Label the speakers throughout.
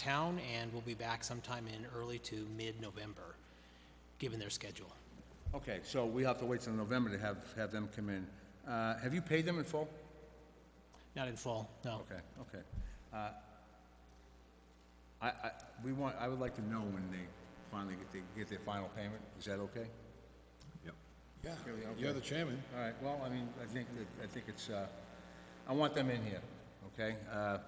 Speaker 1: town and will be back sometime in early to mid-November, given their schedule.
Speaker 2: Okay, so we have to wait till November to have, have them come in. Uh, have you paid them in full?
Speaker 1: Not in full, no.
Speaker 2: Okay, okay. Uh, I, I, we want, I would like to know when they finally get, they get their final payment. Is that okay?
Speaker 3: Yeah, you're the chairman.
Speaker 2: All right, well, I mean, I think, that- I think it's, uh, I want them in here, okay? Uh,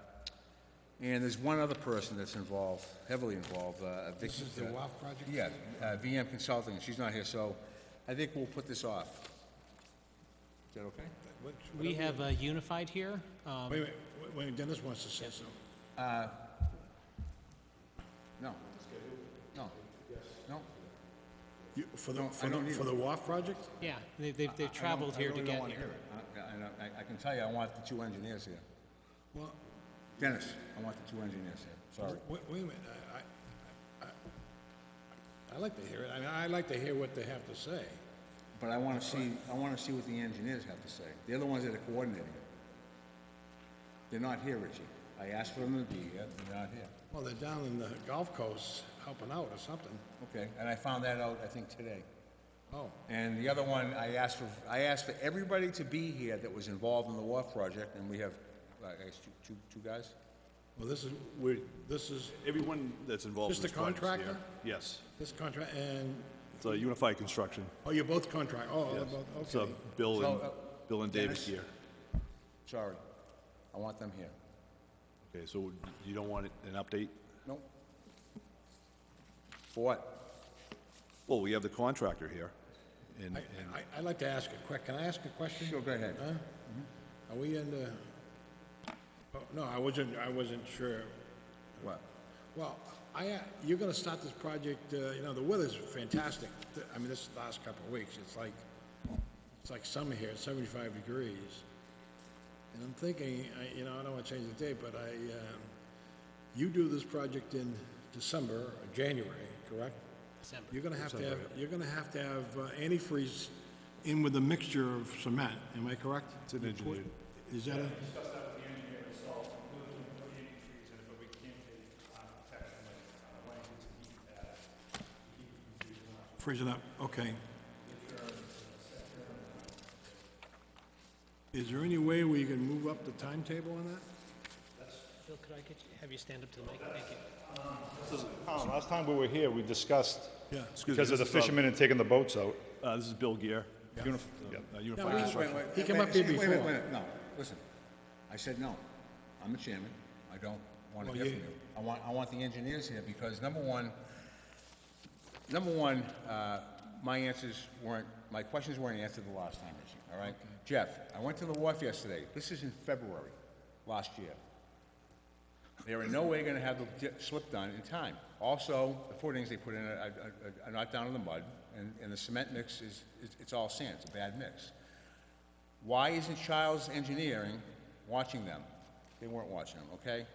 Speaker 2: And there's one other person that's involved, heavily involved, uh, Vicky.
Speaker 3: This is the WAF project?
Speaker 2: Yeah, uh, VM Consulting, she's not here, so I think we'll put this off. Is that okay?
Speaker 3: What-
Speaker 1: We have uh, Unified here. Um,
Speaker 3: Wait, a minute, wait, wait, Dennis wants to say something.
Speaker 2: No. No. No?
Speaker 3: You- For the,
Speaker 2: No, I
Speaker 3: for
Speaker 2: don't
Speaker 3: the,
Speaker 2: need
Speaker 3: for the WAF project?
Speaker 1: Yeah, they- they've
Speaker 2: I
Speaker 1: they've
Speaker 2: don't-
Speaker 1: traveled here to
Speaker 2: I
Speaker 1: get
Speaker 2: really
Speaker 1: here.
Speaker 2: don't want to hear it. I- I- I- I can tell you, I want the two engineers here.
Speaker 3: Well,
Speaker 2: Dennis, I want the two engineers here, sorry.
Speaker 3: wait, wait a minute, I, I, I- I like to hear it, I mean, I like to hear what they have to say.
Speaker 2: But I want to see, I want to see what the engineers have to say. They're the ones that are coordinating it. They're not here, Richie. I asked for them to be here, they're not here.
Speaker 3: Well, they're down in the Gulf Coast helping out or something.
Speaker 2: Okay, and I found that out, I think, today.
Speaker 3: Oh,
Speaker 2: And the other one, I asked for, I asked for everybody to be here that was involved in the wharf project, and we have, uh, I guess, two, two, two guys?
Speaker 3: well, this is, we're, this is,
Speaker 4: Everyone that's involved in
Speaker 3: Just
Speaker 4: this
Speaker 3: the
Speaker 4: project.
Speaker 3: contractor?
Speaker 4: yeah. Yes.
Speaker 3: this contract, and,
Speaker 4: It's uh, Unified Construction.
Speaker 3: oh, you're both contract, oh, they're both,
Speaker 4: So
Speaker 3: okay.
Speaker 4: Bill and,
Speaker 2: So, uh,
Speaker 4: Bill and David
Speaker 2: Dennis?
Speaker 4: here.
Speaker 2: Sorry. I want them here.
Speaker 4: Okay, so you don't want an update?
Speaker 2: Nope. For what?
Speaker 4: Well, we have the contractor here. And,
Speaker 3: I,
Speaker 4: and
Speaker 3: I, I'd like to ask a quick, can I ask a question?
Speaker 2: Sure, go ahead. Mm-hmm.
Speaker 3: Huh? Are we in the, oh, no, I wasn't, I wasn't sure.
Speaker 2: What?
Speaker 3: Well, I, uh, you're gonna start this project, uh, you know, the weather's fantastic. Th- I mean, this last couple of weeks, it's like, it's like summer here, it's seventy-five degrees. And I'm thinking, I, you know, I don't wanna change the date, but I, um, you do this project in December or January, correct?
Speaker 1: December.
Speaker 3: You're gonna have to have, you're gonna have to have uh, antifreeze in with a mixture of cement, am I correct? It's an engineered. Is that a? uh, Freeze uh, it up, okay. Is there any way we can move up the timetable on that?
Speaker 1: Bill, could I get you, have you stand up to the mic? Thank you.
Speaker 5: Tom, last time we were here, we discussed,
Speaker 3: Yeah.
Speaker 4: Excuse me,
Speaker 5: because of the
Speaker 4: this is, uh,
Speaker 5: fishermen had taken the boats out.
Speaker 4: Uh, this is Bill Gear, Unif- uh, Unified
Speaker 3: we-
Speaker 4: Construction.
Speaker 2: Wait, wait,
Speaker 3: He came
Speaker 2: wait,
Speaker 3: up here
Speaker 2: wait, wait,
Speaker 3: before.
Speaker 2: wait, wait, No, listen. I said no. I'm the chairman. I don't want to
Speaker 3: Well,
Speaker 2: hear from
Speaker 3: you-
Speaker 2: you. I want, I want the engineers here because number one, number one, uh, my answers weren't, my questions weren't answered the last time, Richie, all right? Jeff, I went to the wharf yesterday. This is in February, last year. They are in no way gonna have the di- slip done in time. Also, the footings they put in are, are- are not down in the mud, and, and the cement mix is, it's- it's all sand, it's a bad mix. Why isn't Childs Engineering watching them? They weren't watching them, okay?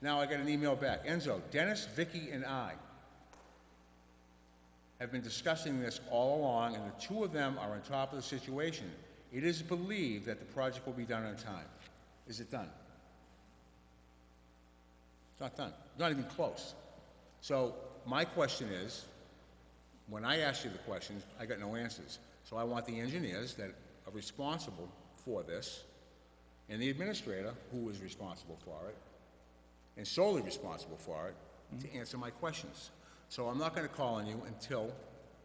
Speaker 2: Now I got an email back. Enzo, Dennis, Vicky, and I have been discussing this all along, and the two of them are on top of the situation. It is believed that the project will be done on time. Is it done? It's not done. Not even close. So my question is, when I asked you the questions, I got no answers. So I want the engineers that are responsible for this, and the administrator, who is responsible for it, and solely responsible for it, to answer my questions. So I'm not gonna call on you until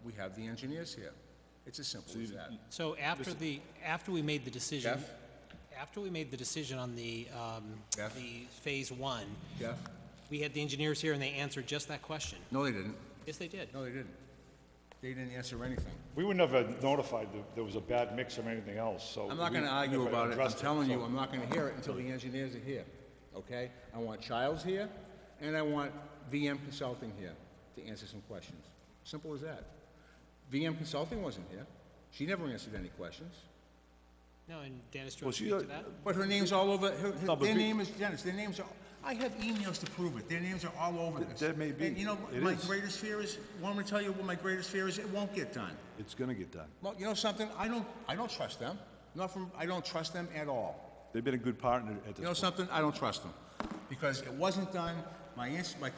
Speaker 2: we have the engineers here. It's as simple as that.
Speaker 1: So after the, after we made the decision,
Speaker 2: Jeff?
Speaker 1: after we made the decision on the, um,
Speaker 2: Jeff?
Speaker 1: the Phase One,
Speaker 2: Yeah?
Speaker 1: we had the engineers here and they answered just that question.
Speaker 2: No, they didn't.
Speaker 1: Yes, they did.
Speaker 2: No, they didn't. They didn't answer anything.
Speaker 5: We were never notified that there was a bad mix or anything else, so.
Speaker 2: I'm not
Speaker 5: we
Speaker 2: gonna argue
Speaker 5: never
Speaker 2: about it, I'm
Speaker 5: addressed
Speaker 2: telling you,
Speaker 5: so-
Speaker 2: I'm not gonna hear it until the engineers are here, okay? I want Childs here, and I want VM Consulting here to answer some questions. Simple as that. VM Consulting wasn't here, she never answered any questions.
Speaker 1: No, and Dennis, do you
Speaker 4: Well,
Speaker 1: want to
Speaker 4: she,
Speaker 1: speak
Speaker 4: uh,
Speaker 1: to that?
Speaker 2: But her name's all over, her, her-
Speaker 4: No, but
Speaker 2: their
Speaker 4: Vic-
Speaker 2: name is Dennis, their names are, I have emails to prove it, their names are all over this.
Speaker 4: that may be.
Speaker 2: And you know,
Speaker 4: It
Speaker 2: my
Speaker 4: is.
Speaker 2: greatest fear is, want me to tell you what my greatest fear is? It won't get done.
Speaker 4: It's gonna get done.
Speaker 2: Well, you know something, I don't, I don't trust them, not from, I don't trust them at all.
Speaker 4: They've been a good partner at this
Speaker 2: You know
Speaker 4: point.
Speaker 2: something? I don't trust them. Because it wasn't done, my, ins- my